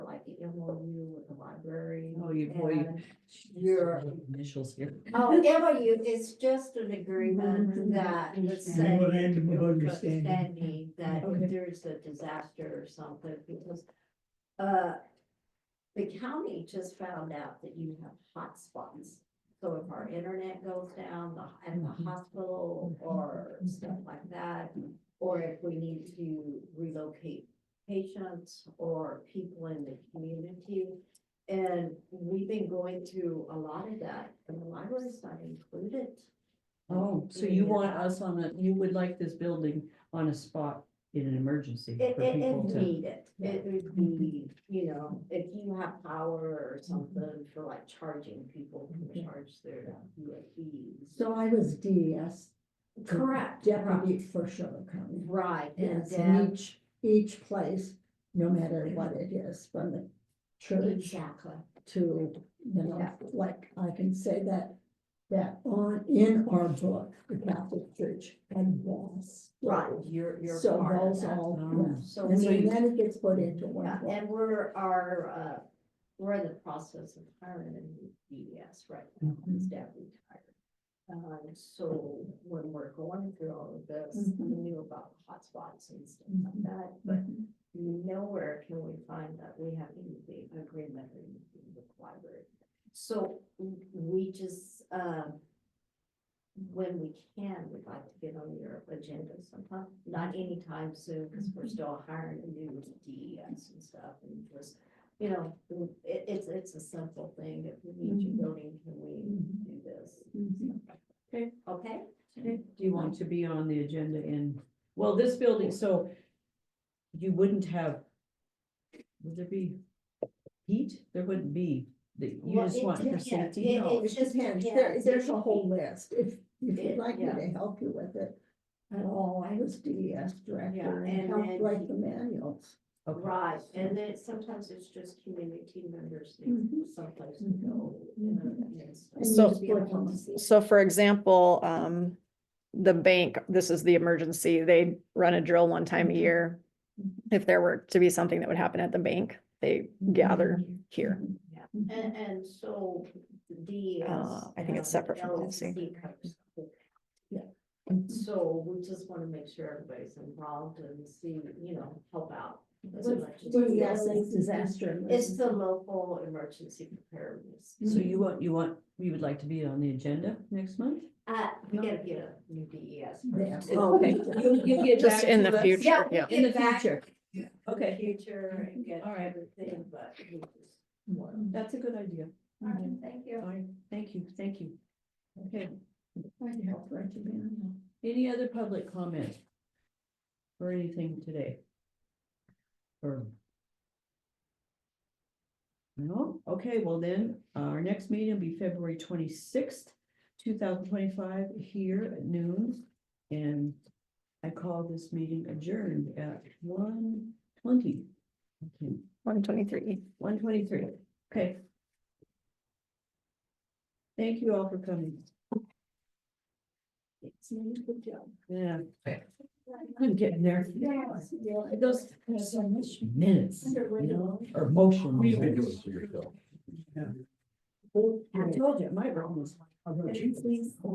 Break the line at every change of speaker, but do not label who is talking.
MOU with the library.
Oh, you- boy, you-
and-
Your initials here.
Oh, MOU is just an agreement
Mhm.
that would
Yeah.
say.
Memorandum of
that you're
understanding.
understanding That
Okay.
if there's a disaster or something, because, uh, the county just found out that you have hotspots. So if our internet goes down the- at the
Mhm.
hospital or stuff like that, or if we need to relocate patients or people in the community. And we've been going through a lot of that, and the library's not included.
Oh, so you want us on a, you would like this building on a spot in an emergency
It,
for
it,
people
it
to.
needed, it would be, you know, if you have power or something for like charging people, who charge their UAVs.
So I was E DES
Correct.
deputy for Sherwood County.
Right, and
Yes, and
then,
each, each place, no matter what it is, from the church
exactly,
to, you know,
Yeah.
like, I can say that, that on, in our book, the Catholic Church and yes.
right, you're, you're
So
part of
those
that. Mm-hmm.
all,
Oh.
yeah.
So
And so
we-
then it gets put into one
Yeah,
book.
and we're, our, uh, we're in the process of hiring a new DES right now, his dad retired. Um, so when we're going through all of this, we
Mhm.
knew about hotspots and stuff like that, but nowhere can we find that we have any big agreement or anything with the library. So w- we just, um, when we can, we'd like to get on your agenda sometime, not anytime soon, because we're still hiring a new DES and stuff, and just, you know, it, it's, it's a simple thing, if we need your building, can we
mm-hmm.
do this?
Okay.
Okay?
Okay, Do you want to be on the agenda in, well, this building, so you wouldn't have, would there be heat? There wouldn't be, the- you
Well,
just
it
want for
depends.
safety.
It-
No.
it-
It
just-
depends,
yeah,
there,
it's
there's a
just-
whole list, if, if
It-
you'd like me
yeah.
to help you with it. At all, I was DES director
and
and helped
then
write
you-
the manuals.
Okay.
Right, and then sometimes it's just community members, they have
Mhm.
someplace to go, you know, and stuff.
And you
So-
just put it on the seat.
So for example, um, the bank, this is the emergency, they run a drill one time a
Mm-hmm.
Mhm.
year.
Mhm.
If there were to be something that would happen at the bank, they gather here.
And, and so the.
Uh, I think it's separate from Mm-hmm. policy.
Yeah.
So we just wanna make sure everybody's involved and see, you know, help out. as
What's
much as we
DES
can.
is disaster.
Mm-hmm.
It's the local emergency preparedness.
So you want, you want, you would like to be on the agenda next month?
Uh, we gotta get a new E DES.
There.
person.
Oh, okay.
You, you get
Just
back
in
to
the
us
future,
Yeah.
yeah.
In the
Get back
future.
in the
Okay,
Future and get
All right.
everything, but. we just-
that's a good idea.
All right, thank you.
All right, thank you, thank you. Okay,
I'd help write the manual.
any other public comment? Or anything today? Or? No, okay, well then, our next meeting will be February twenty-sixth, two thousand twenty-five, here at noon. And I call this meeting adjourned at one twenty. Okay,
One twenty-three.
one twenty-three, okay. Thank you all for coming.
Good job.
Yeah. I'm getting there.
Yes, yeah, it
Those
does. There's so much
minutes, you know, or motion.
We've
You've been doing
minutes.
it for yourself.
I told you, my room was.
Could you please